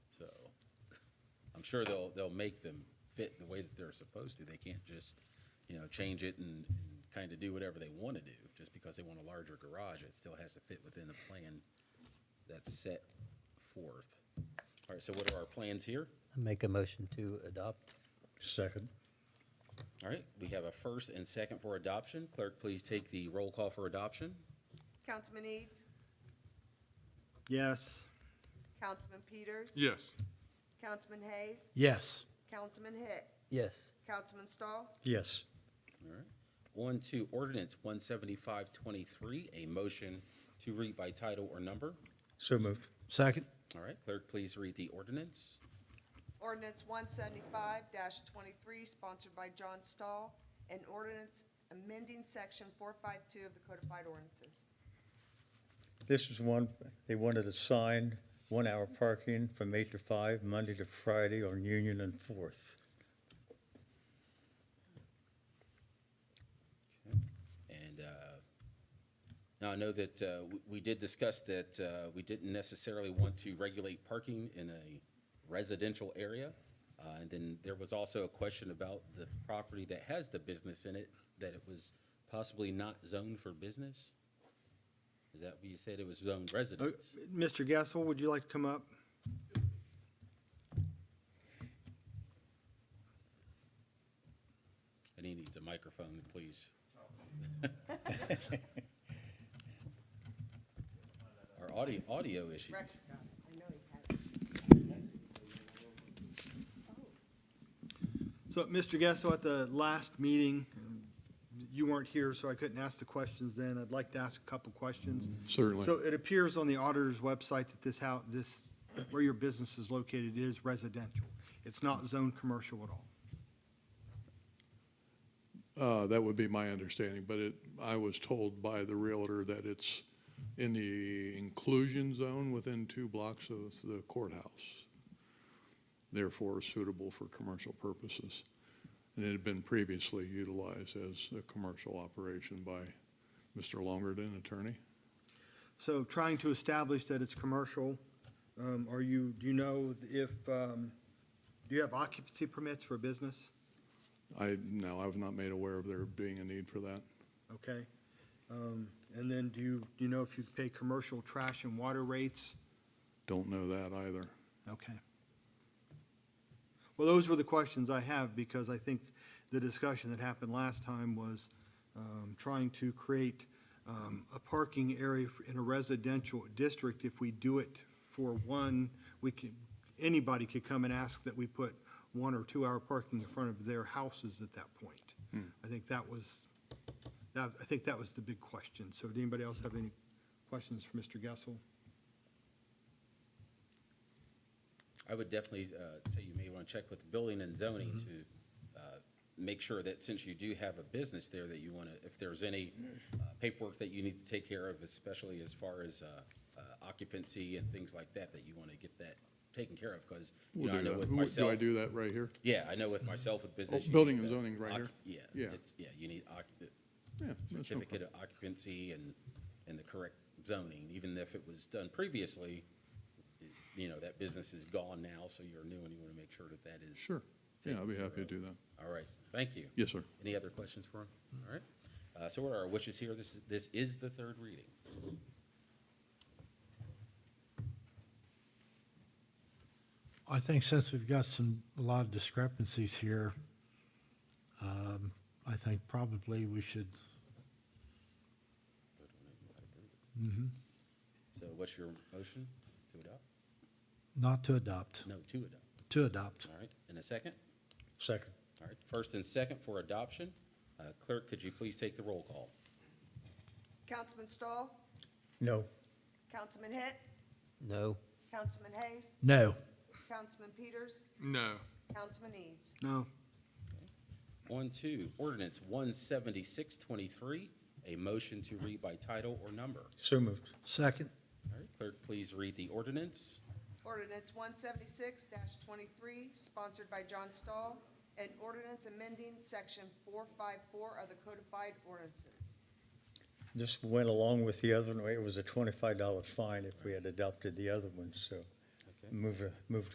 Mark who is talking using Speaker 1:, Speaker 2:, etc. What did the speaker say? Speaker 1: I'm sure they'll, they'll make them fit the way that they're supposed to. They can't just, you know, change it and kind of do whatever they want to do. Just because they want a larger garage, it still has to fit within the plan that's set forth. All right, so what are our plans here?
Speaker 2: I Make a motion to adopt.
Speaker 3: Second.
Speaker 1: All right, we have a first and second for adoption. Clerk, please take the roll call for adoption.
Speaker 4: Councilman Eads,
Speaker 3: Yes.
Speaker 4: Councilman Peters,
Speaker 5: Yes.
Speaker 4: Councilman Hayes,
Speaker 3: Yes.
Speaker 4: Councilman Hitt,
Speaker 2: Yes,
Speaker 4: Councilman Stahl,
Speaker 3: Yes.
Speaker 1: All right. On to ordinance one seventy-five twenty-three, a motion to read by title or number.
Speaker 3: So moved.
Speaker 6: Second?
Speaker 1: All right, clerk, please read the ordinance.
Speaker 4: ordinance one seventy-five twenty-three, sponsored by John Stahl, and ordinance amending section four five two of the codified ordinances.
Speaker 3: This is one, they wanted a sign, one-hour parking from eight to five, Monday to Friday on Union and Fourth.
Speaker 1: And uh, now I know that uh, we- we did discuss that uh, we didn't necessarily want to regulate parking in a residential area. Uh, And then there was also a question about the property that has the business in it, that it was possibly not zoned for business? Is that what you said, it was zoned residence?
Speaker 7: Uh,
Speaker 6: Mr. Gassel, Uh, would you like to come up?
Speaker 1: And he needs a microphone, please. Our audio, audio issues.
Speaker 4: Rex got it, I know he has it.
Speaker 6: So, Mr. Gassel, at the last meeting, you weren't here, so I couldn't ask the questions then. I'd like to ask a couple questions.
Speaker 5: Certainly.
Speaker 6: So it appears on the auditor's website that this house, this, where your business is located is residential. It's not zoned commercial at all.
Speaker 5: Uh, That would be my understanding, but it, I was told by the realtor that it's in the inclusion zone within two blocks of the courthouse, therefore suitable for commercial purposes. And it had been previously utilized as a commercial operation by Mr. Longerton, attorney.
Speaker 6: So trying to establish that it's commercial, um, are you, do you know if, um, do you have occupancy permits for business?
Speaker 5: I, no, I was not made aware of there being a need for that.
Speaker 6: Okay. Um, And then do you, do you know if you pay commercial trash and water rates?
Speaker 5: Don't know that either.
Speaker 6: Okay. Well, those were the questions I have because I think the discussion that happened last time was um, trying to create um, a parking area f- in a residential district. If we do it for one, we can, anybody could come and ask that we put one or two-hour parking in front of their houses at that point. I think that was, that- I think that was the big question. So did anybody else have any questions for Mr. Gessel?
Speaker 1: I would definitely uh, say you may want to check with building and zoning
Speaker 5: Mm-hmm.
Speaker 1: to uh, make sure that since you do have a business there, that you want to, if there's any uh, paperwork that you need to take care of, especially as far as uh, uh, occupancy and things like that, that you want to get that taken care of, because, you
Speaker 5: We'll
Speaker 1: know, I
Speaker 5: do
Speaker 1: know
Speaker 5: that.
Speaker 1: with
Speaker 5: Who- Do
Speaker 1: myself.
Speaker 5: I do that right here?
Speaker 1: Yeah, I know with myself with business. you need
Speaker 5: building and
Speaker 1: the
Speaker 5: zoning right
Speaker 1: occu-
Speaker 5: here?
Speaker 1: Yeah.
Speaker 5: Yeah.
Speaker 1: it's- Yeah, you need occu-
Speaker 5: Yeah, that's no
Speaker 1: certificate
Speaker 5: problem.
Speaker 1: of occupancy and, and the correct zoning, even if it was done previously, you know, that business is gone now, so you're new and you want to make sure that that is.
Speaker 5: Sure. Yeah, I'd be happy to do that.
Speaker 1: All right, thank you.
Speaker 5: Yes, sir.
Speaker 1: Any other questions for him? All right, uh, so what are our wishes here? This, is- this is the third reading.
Speaker 7: I think since we've got some, a lot of discrepancies here, um, I think probably we should,
Speaker 5: Mm-hmm.
Speaker 1: So what's your motion to adopt?
Speaker 7: not to adopt,
Speaker 1: No, to adopt,
Speaker 7: to adopt.
Speaker 1: all right, in a second?
Speaker 3: Second.
Speaker 1: All right, first and second for adoption. Uh, Clerk, could you please take the roll call?
Speaker 4: Councilman Stahl,
Speaker 3: No.
Speaker 4: Councilman Hitt,
Speaker 2: no,
Speaker 4: Councilman Hayes,
Speaker 7: No,
Speaker 4: Councilman Peters,
Speaker 5: No.
Speaker 4: Councilman Eads.
Speaker 6: No?
Speaker 1: On to ordinance one seventy-six twenty-three, a motion to read by title or number.
Speaker 3: So moved.
Speaker 7: second,
Speaker 1: All right, clerk, please read the ordinance.
Speaker 4: Ordinance one seventy-six twenty-three, sponsored by John Stahl, and ordinance amending section four five four of the codified ordinances.
Speaker 3: This went along with the other one. It was a twenty-five dollar fine if we had adopted the other one, so
Speaker 1: Okay.
Speaker 3: move, move